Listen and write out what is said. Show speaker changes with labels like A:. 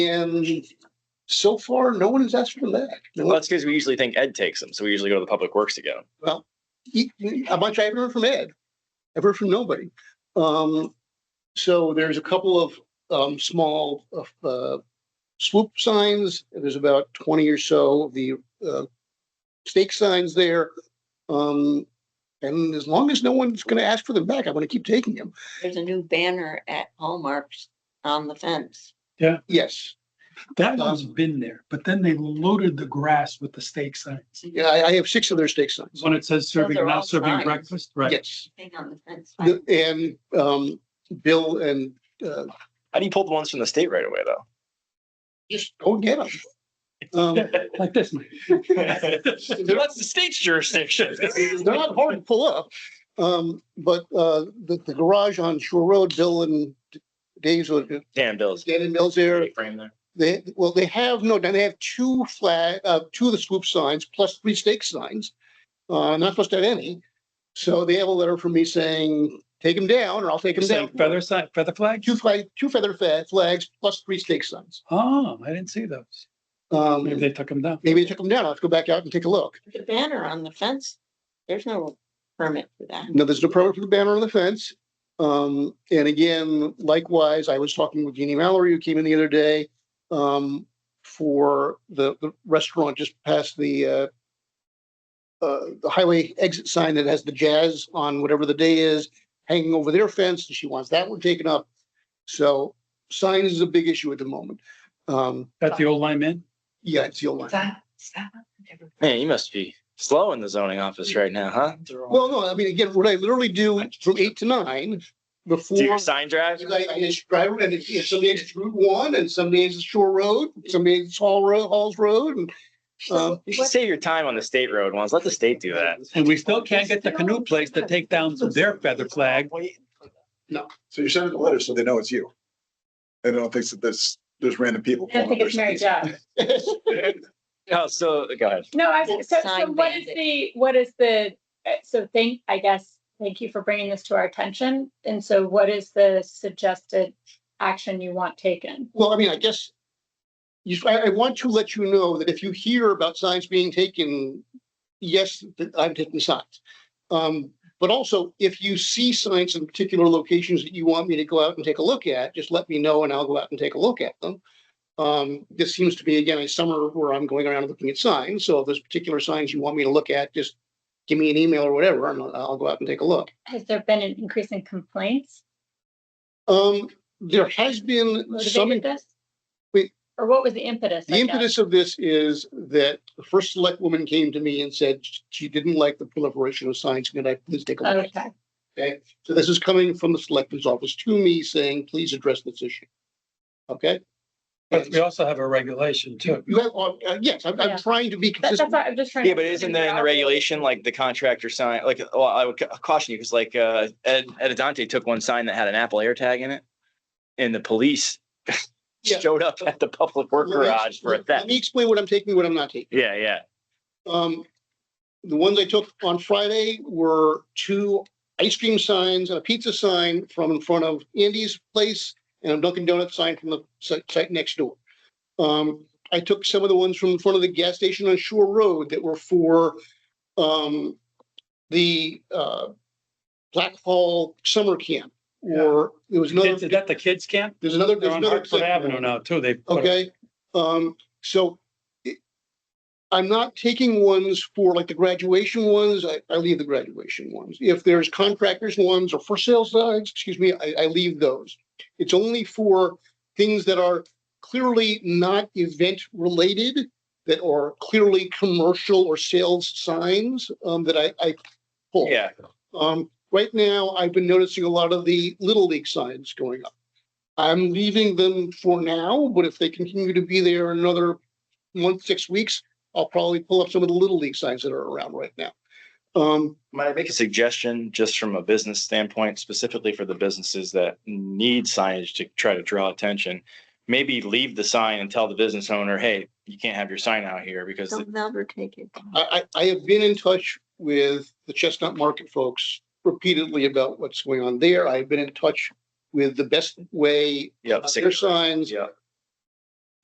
A: And so far, no one has asked for that. No
B: Well,
A: one-
B: that's because we usually think Ed takes them, so we usually go to the public works to get them.
A: he- he- How much I haven't heard from Ed, I've heard from nobody. Um, so there's a couple of, um, small, uh, swoop signs. There's about twenty or so of the, uh, stake signs there. Um, and as long as no one's gonna ask for them back, I'm gonna keep taking them.
C: There's a new banner at Hallmark's on the fence.
A: Yes.
D: That one's been there, but then they loaded the grass with the steak signs.
A: Yeah, I, I have six of their stake signs.
D: When it says serving,
C: Those are
D: now
C: all
D: serving
C: signs.
D: breakfast, right?
A: Yes.
C: Thing on the fence.
A: The- And, um, Bill and, uh,
B: How do you pull the ones from the state right away, though?
A: just go and get them. Um,
D: Like this.
B: That's the state's jurisdiction.
A: They're not hard to pull up. Um, but, uh, the, the garage on Shore Road, Bill and Dave's, or
B: Damn bills.
A: Dan and Bill's there,
B: Frame there.
A: they, well, they have, no, they have two flag, uh, two of the swoop signs plus three stake signs. Uh, I'm not supposed to have any. So they have a letter from me saying, take them down or I'll take them down.
D: Saying Feather sign, feather flag?
A: Two flag, two feather fa- flags plus three stake signs.
D: Oh, I didn't see those.
A: Um,
D: Maybe they took them down.
A: maybe they took them down. I'll have to go back out and take a look.
C: The banner on the fence, there's no permit for that.
A: No, there's no permit for the banner on the fence. Um, and again, likewise, I was talking with Jeannie Mallory, who came in the other day, um, for the, the restaurant just past the, uh, uh, the highway exit sign that has the jazz on whatever the day is hanging over their fence, and she wants that one taken up. So signs is a big issue at the moment. Um,
D: At the old lime in?
A: yeah, it's the old line.
B: Man, you must be slow in the zoning office right now, huh?
A: Well, no, I mean, again, what I literally do from eight to nine before.
B: Do your sign drive?
A: I, I describe it, and it, you know, some days it's Route One, and some days it's Shore Road, some days it's Hall Road, Halls Road, and, um,
B: You should save your time on the state road ones. Let the state do that.
D: And we still can't get the canoe place to take down their feather flag.
E: So you're sending a letter so they know it's you. And I don't think that there's, there's random people.
F: I don't think it's Mary Jo.
B: Oh, so, go ahead.
F: No, I, so,
C: It's
F: so
C: sign
F: what is
C: bandit.
F: the, what is the, uh, so thank, I guess, thank you for bringing this to our attention. And so what is the suggested action you want taken?
A: well, I mean, I guess. You, I, I want to let you know that if you hear about signs being taken, yes, that I've taken signs. Um, but also, if you see signs in particular locations that you want me to go out and take a look at, just let me know and I'll go out and take a look at them. Um, this seems to be again a summer where I'm going around looking at signs, so if there's particular signs you want me to look at, just give me an email or whatever, and I'll- I'll go out and take a look.
F: Has there been an increase in complaints
A: Um, there has been some,
F: motivated this?
A: wait.
F: Or what was the impetus?
A: the
F: I guess?
A: impetus of this is that the first select woman came to me and said she didn't like the proliferation of signs, could I please take a look?
F: Okay,
A: Okay, so this is coming from the selectman's office to me saying, please address this issue. Okay?
D: But we also have a regulation too.
A: You have, uh, yes, I'm, I'm
F: Yeah.
A: trying to be
F: That- that's,
A: consistent.
F: what I'm just trying.
B: Yeah,
F: to
B: but isn't
F: figure
B: that in the
F: out.
B: regulation, like the contractor sign, like, well, I would ca- caution you, because like, uh, Ed, Ed Adante took one sign that had an Apple AirTag in it. And the police
A: Yeah.
B: showed up at the public work
A: Let me-
B: garage for a
A: Let me
B: theft.
A: explain what I'm taking, what I'm not taking.
B: Yeah, yeah.
A: Um, the ones I took on Friday were two ice cream signs and a pizza sign from in front of Andy's place and a Dunkin' Donut sign from the site, site next door. Um, I took some of the ones from in front of the gas station on Shore Road that were for, um, the, uh, Black Hall Summer Camp, or there was
D: Is
A: another,
D: that the kids camp?
A: there's another,
D: They're
A: there's
D: on
A: another.
D: Hartford Avenue now too. They. put up-
A: Okay, um, so it- I'm not taking ones for like the graduation ones. I, I leave the graduation ones. If there's contractors ones or for sale signs, excuse me, I, I leave those. It's only for things that are clearly not event related, that are clearly commercial or sales signs, um, that I, I pull.
B: Yeah,
A: Um, right now, I've been noticing a lot of the Little League signs going up. I'm leaving them for now, but if they continue to be there another month, six weeks, I'll probably pull up some of the Little League signs that are around right now. Um,
B: might I make a suggestion just from a business standpoint, specifically for the businesses that need signage to try to draw attention? Maybe leave the sign and tell the business owner, hey, you can't have your sign out here because
C: They'll never take it.
A: I, I, I have been in touch with the Chestnut Market folks repeatedly about what's going on there. I've been in touch with the best way
B: yeah,
A: on their signs.
B: yeah.